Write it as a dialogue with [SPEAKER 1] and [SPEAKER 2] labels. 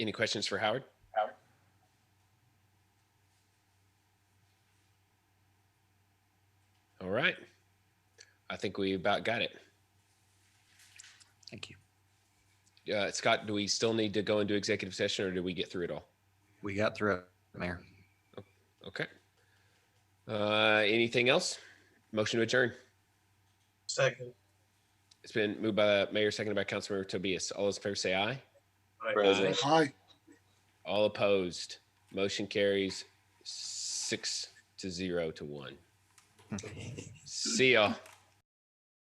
[SPEAKER 1] Any questions for Howard? All right. I think we about got it.
[SPEAKER 2] Thank you.
[SPEAKER 1] Uh, Scott, do we still need to go into executive session or do we get through it all?
[SPEAKER 2] We got through it, Mayor.
[SPEAKER 1] Okay. Uh, anything else? Motion to adjourn.
[SPEAKER 3] Second.
[SPEAKER 1] It's been moved by the mayor, seconded by Councilmember Tobias. All those in favor say aye.
[SPEAKER 4] President.
[SPEAKER 5] Aye.
[SPEAKER 1] All opposed. Motion carries six to zero to one. See y'all.